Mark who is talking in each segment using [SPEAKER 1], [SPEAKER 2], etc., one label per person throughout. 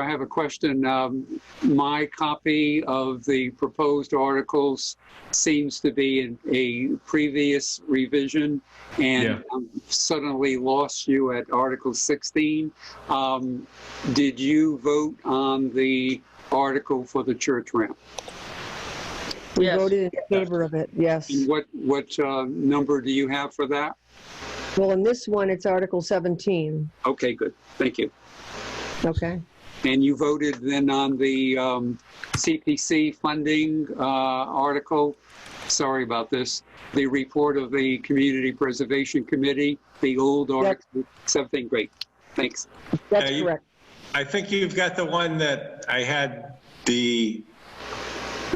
[SPEAKER 1] I have a question. Um, My copy of the proposed articles seems to be in a previous revision,
[SPEAKER 2] Yeah.
[SPEAKER 1] and um, suddenly lost you at Article 16. Um, Did you vote on the article for the church ramp?
[SPEAKER 3] We
[SPEAKER 4] Yes.
[SPEAKER 3] voted in favor of it, yes.
[SPEAKER 1] And what, what uh, number do you have for that?
[SPEAKER 3] Well, in this one, it's Article 17,
[SPEAKER 1] Okay, good. Thank you.
[SPEAKER 3] okay?
[SPEAKER 1] And you voted then on the um, CPC funding uh, article, sorry about this, the report of the Community Preservation Committee, the old article, something great. Thanks.
[SPEAKER 3] That's
[SPEAKER 2] Yeah, you-
[SPEAKER 3] correct.
[SPEAKER 2] I think you've got the one that I had the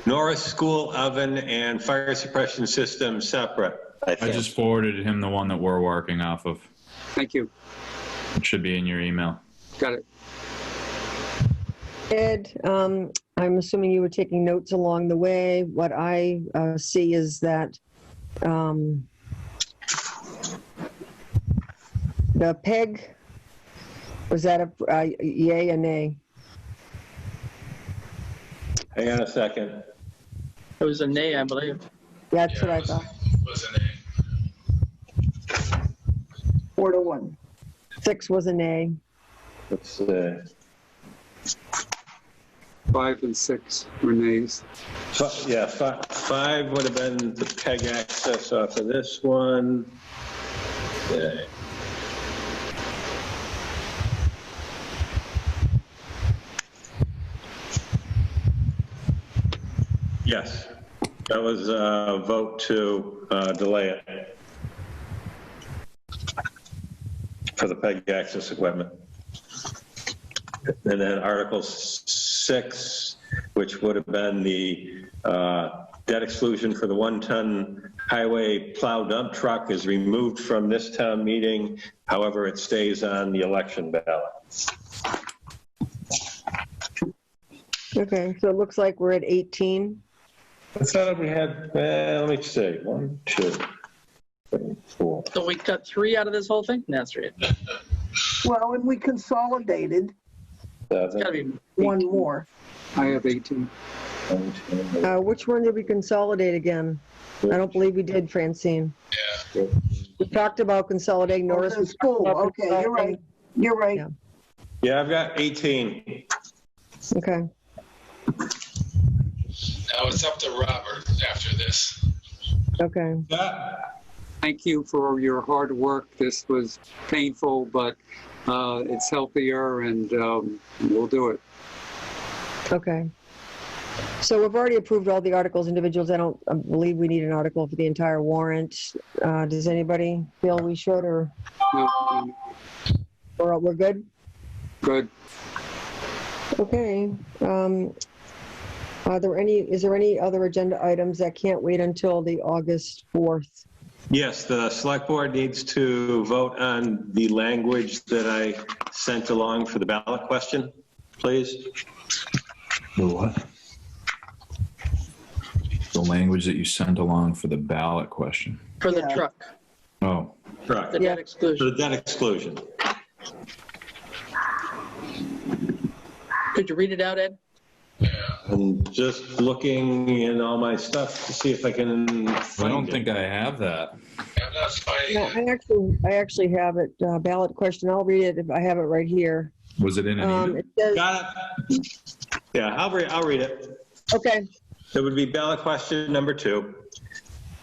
[SPEAKER 2] Norris School Oven and Fire Suppression System separate.
[SPEAKER 5] I
[SPEAKER 6] I
[SPEAKER 5] think.
[SPEAKER 6] just forwarded him the one that we're working off of.
[SPEAKER 1] Thank you.
[SPEAKER 6] It should be in your email.
[SPEAKER 1] Got it.
[SPEAKER 3] Ed, um, I'm assuming you were taking notes along the way. What I uh, see is that um, the PEG, was that a uh, yay or nay?
[SPEAKER 2] Hang on a second.
[SPEAKER 4] It was a nay, I believe.
[SPEAKER 3] That's what I thought.
[SPEAKER 7] was a name.
[SPEAKER 8] Four to one.
[SPEAKER 3] Six was a nay.
[SPEAKER 2] Let's, uh,
[SPEAKER 1] Five and six were nays.
[SPEAKER 2] fi- yeah, fi- five would have been the peg access off of this one. Okay. Yes, that was a vote to uh, delay it for the peg access equipment. And then Article 6, which would have been the uh, debt exclusion for the one-ton highway plow dump truck is removed from this town meeting. However, it stays on the election ballot.
[SPEAKER 3] Okay, so it looks like we're at 18.
[SPEAKER 2] I thought we had, eh, let me see, one, two, three, four.
[SPEAKER 4] So we cut three out of this whole thing? No, That's right. It's
[SPEAKER 8] Well, and we consolidated
[SPEAKER 4] gotta
[SPEAKER 2] seven,
[SPEAKER 4] be,
[SPEAKER 8] one more.
[SPEAKER 1] I have 18.
[SPEAKER 2] nine, ten,
[SPEAKER 3] Uh, which one did we consolidate again? I don't believe we did, Francine.
[SPEAKER 2] Yeah.
[SPEAKER 3] We talked about consolidating Norris.
[SPEAKER 8] Oh, the
[SPEAKER 3] we talked
[SPEAKER 8] School,
[SPEAKER 3] about
[SPEAKER 8] okay, you're right. You're right.
[SPEAKER 3] Yeah.
[SPEAKER 2] Yeah, I've got 18.
[SPEAKER 3] consolidating- Okay,
[SPEAKER 7] Now it's up to Robert after this.
[SPEAKER 3] okay.
[SPEAKER 2] Yeah,
[SPEAKER 1] Thank you for your hard work. This was painful, but uh, it's healthier and um, we'll do it.
[SPEAKER 3] Okay. So we've already approved all the articles individuals. I don't I believe we need an article for the entire warrant. Uh, does anybody feel we should or,
[SPEAKER 1] No, no,
[SPEAKER 3] or we're good?
[SPEAKER 1] Good.
[SPEAKER 3] Okay. Um, are there any, is there any other agenda items that can't wait until the August 4th?
[SPEAKER 2] Yes, the select board needs to vote on the language that I sent along for the ballot question, please.
[SPEAKER 6] The what? The language that you sent along for the ballot question.
[SPEAKER 4] for the
[SPEAKER 8] Yeah.
[SPEAKER 4] truck,
[SPEAKER 6] Oh,
[SPEAKER 2] Correct.
[SPEAKER 4] the
[SPEAKER 3] Yeah.
[SPEAKER 4] debt exclusion.
[SPEAKER 2] For the debt exclusion.
[SPEAKER 4] Could you read it out, Ed?
[SPEAKER 2] I'm just looking in all my stuff to see if I can
[SPEAKER 6] I
[SPEAKER 2] find
[SPEAKER 6] don't
[SPEAKER 2] it.
[SPEAKER 6] think I have that.
[SPEAKER 7] I'm not fighting
[SPEAKER 3] No,
[SPEAKER 7] it.
[SPEAKER 3] I actually, I actually have it, uh, ballot question. I'll read it if I have it right here.
[SPEAKER 6] Was it in an
[SPEAKER 3] Um,
[SPEAKER 6] email?
[SPEAKER 3] it says,
[SPEAKER 2] Got it. Yeah, I'll read, I'll read it.
[SPEAKER 3] okay,
[SPEAKER 2] It would be ballot question number two.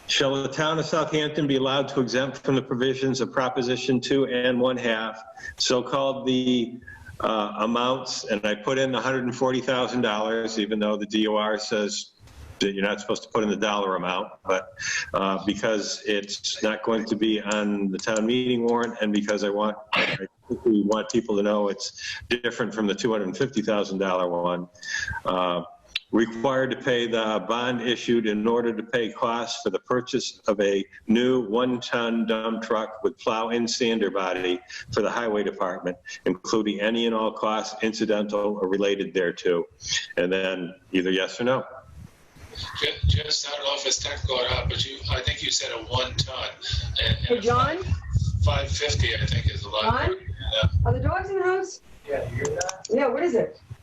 [SPEAKER 2] Shall the town of Southampton be allowed to exempt from the provisions of Proposition 2 and 1 half, so-called the uh, amounts, and I put in $140,000, even though the DOR says that you're not supposed to put in the dollar amount, but uh, because it's not going to be on the town meeting warrant, and because I want, I think we want people to know it's different from the $250,000 one. Uh, required to pay the bond issued in order to pay costs for the purchase of a new one-ton dump truck with plow and sander body for the highway department, including any and all costs incidental or related thereto. And then either yes or no.
[SPEAKER 7] Ju- Just, I don't know if it's technical or not, uh, but you, I think you said a one ton. and- and
[SPEAKER 3] Hey,
[SPEAKER 7] a
[SPEAKER 3] John?
[SPEAKER 7] Five fifty, I think is a lot.
[SPEAKER 3] John? are the dogs in the house? Yeah, you hear that? Yeah, what is it?